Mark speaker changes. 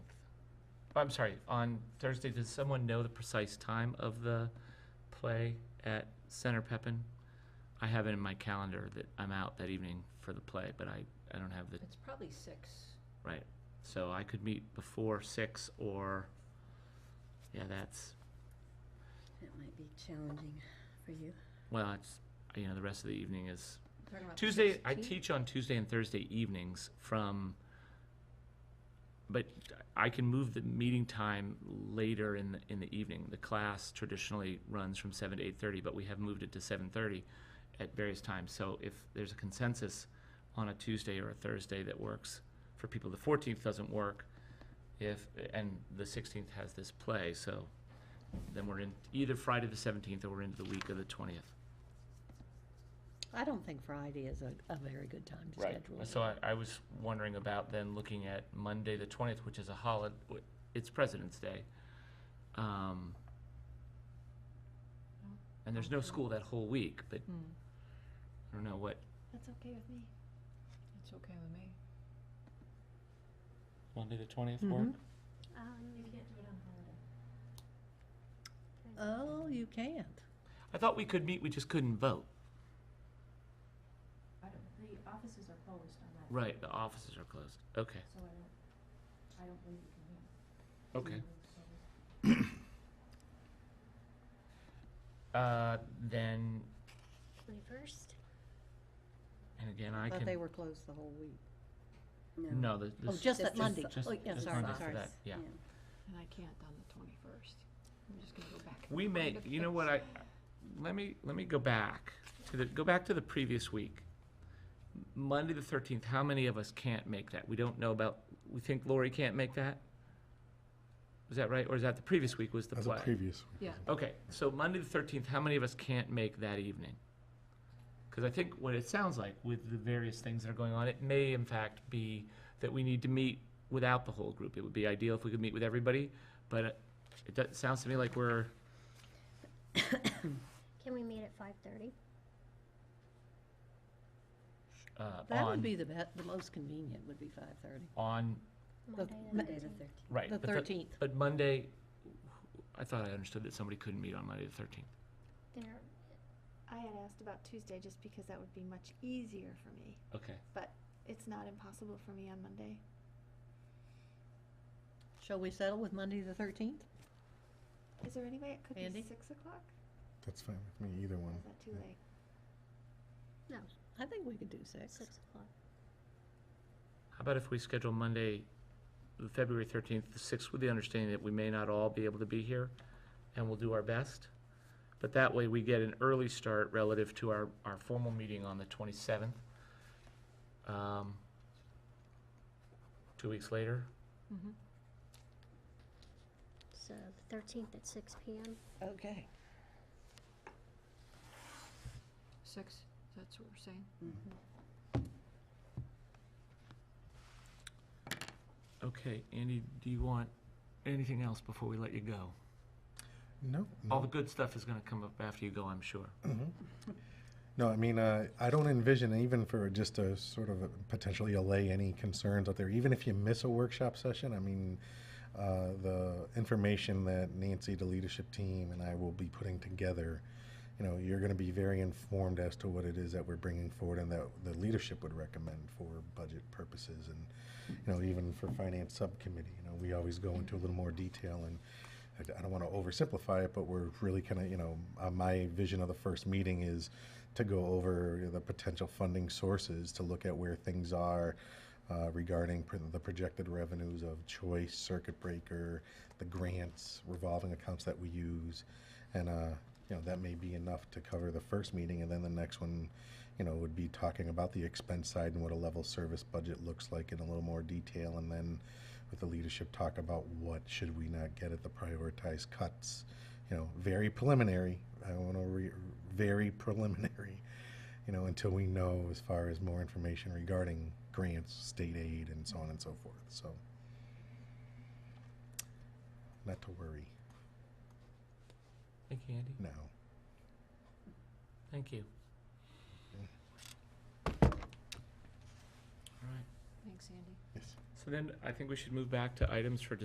Speaker 1: I'm sorry, on Thursday, does someone know the precise time of the play at Center Pepin? I have it in my calendar that I'm out that evening for the play, but I, I don't have the,
Speaker 2: It's probably six.
Speaker 1: right. So I could meet before six or, yeah, that's,
Speaker 2: That might be challenging for you.
Speaker 1: well, it's, you know, the rest of the evening is
Speaker 2: Talking about the
Speaker 1: Tuesday, I
Speaker 2: 16th?
Speaker 1: teach on Tuesday and Thursday evenings from, but I can move the meeting time later in the, in the evening. The class traditionally runs from seven to eight thirty, but we have moved it to seven thirty at various times. So if there's a consensus on a Tuesday or a Thursday that works for people, the fourteenth doesn't work if, and the sixteenth has this play, so then we're in either Friday the seventeenth or we're into the week of the twentieth.
Speaker 3: I don't think Friday is a, a very good time to schedule.
Speaker 1: So I, I was wondering about then looking at Monday, the twentieth, which is a holiday, it's President's Day. Um, And there's no school that whole week, but
Speaker 3: Hmm.
Speaker 1: I don't know what,
Speaker 3: That's okay with me.
Speaker 2: It's okay with me.
Speaker 1: Monday, the twentieth
Speaker 3: work?
Speaker 1: work?
Speaker 3: Mhm.
Speaker 4: Um,
Speaker 3: Oh, you can't.
Speaker 1: I thought we could meet, we just couldn't vote.
Speaker 4: I don't, the offices are closed on that.
Speaker 1: Right, the offices are closed. Okay.
Speaker 4: So I don't, I don't believe you can meet.
Speaker 3: Mm-hmm.
Speaker 1: Okay.
Speaker 4: So-
Speaker 1: Uh, then,
Speaker 5: Twenty-first?
Speaker 1: and again, I
Speaker 3: Thought they
Speaker 1: can,
Speaker 3: were closed the whole week.
Speaker 1: no, the,
Speaker 3: Oh,
Speaker 1: this,
Speaker 3: just that
Speaker 2: Just-
Speaker 3: Monday.
Speaker 1: just,
Speaker 3: Oh, yeah,
Speaker 1: just
Speaker 3: sorry,
Speaker 1: Monday for
Speaker 3: sorry.
Speaker 1: that, yeah.
Speaker 2: And I can't on the twenty-first. I'm just gonna go back.
Speaker 1: We may, you know what, I, let me, let me go back to the, go back to the previous week. Monday the thirteenth, how many of us can't make that? We don't know about, we think Lori can't make that? Is that right, or is that the previous week was the
Speaker 6: As a
Speaker 1: play?
Speaker 6: previous.
Speaker 2: Yeah.
Speaker 1: Okay, so Monday the thirteenth, how many of us can't make that evening? Because I think what it sounds like with the various things that are going on, it may in fact be that we need to meet without the whole group. It would be ideal if we could meet with everybody, but it- it does, sounds to me like we're
Speaker 5: Can we meet at five-thirty?
Speaker 1: uh,
Speaker 3: That
Speaker 1: on-
Speaker 3: would be the best, the most convenient would be five thirty.
Speaker 1: on,
Speaker 5: Monday the
Speaker 3: Ma-
Speaker 2: Monday the
Speaker 5: thirteenth?
Speaker 2: thirteenth.
Speaker 1: right.
Speaker 3: The
Speaker 1: but thir-
Speaker 3: thirteenth.
Speaker 1: But Monday, I thought I understood that somebody couldn't meet on Monday the thirteenth.
Speaker 5: There,
Speaker 7: I had asked about Tuesday just because that would be much easier for me.
Speaker 1: Okay.
Speaker 7: It's not impossible for me on Monday.
Speaker 3: Shall we settle with Monday the thirteenth?
Speaker 7: Is there any way it could
Speaker 3: Andy?
Speaker 7: be six o'clock?
Speaker 6: That's fine with me, either
Speaker 7: Or
Speaker 6: one.
Speaker 7: is that too late?
Speaker 3: I think we could do six.
Speaker 5: six o'clock.
Speaker 1: How about if we schedule Monday, the February thirteenth, the sixth, with the understanding that we may not all be able to be here, and we'll do our best? But that way, we get an early start relative to our, our formal meeting on the twenty-seventh. Um, Two weeks later,
Speaker 2: mm-hmm.
Speaker 5: So the thirteenth at six P M.
Speaker 3: Okay.
Speaker 2: Six, that's what we're saying.
Speaker 3: Mm-hmm.
Speaker 1: okay, Andy, do you want anything else before we let you go?
Speaker 6: No,
Speaker 1: All the
Speaker 6: no,
Speaker 1: good stuff is gonna come up after you go, I'm sure.
Speaker 6: no. I mean, uh, I don't envision even for just to sort of potentially allay any concerns out there. Even if you miss a workshop session, I mean, uh, the information that Nancy, the leadership team, and I will be putting together, you know, you're going to be very informed as to what it is that we're bringing forward and that the leadership would recommend for budget purposes and you know, even for finance subcommittee, you know, we always go into a little more detail and I d- I don't want to oversimplify it, but we're really kind of, you know, uh, my vision of the first meeting is to go over the potential funding sources, to look at where things are uh, regarding pr- the projected revenues of choice, circuit breaker, the grants, revolving accounts that we use. And, uh, you know, that may be enough to cover the first meeting, and then the next one, you know, would be talking about the expense side and what a level service budget looks like in a little more detail, and then with the leadership talk about what should we not get at the prioritized cuts. You know, very preliminary, I want to re, very preliminary, you know, until we know as far as more information regarding grants, state aid, and so on and so forth, so. Not to worry
Speaker 1: Thank you, Andy.
Speaker 6: now.
Speaker 1: Thank you. All right.
Speaker 2: Thanks, Andy.
Speaker 6: Yes.
Speaker 1: So then I think we should move back to items for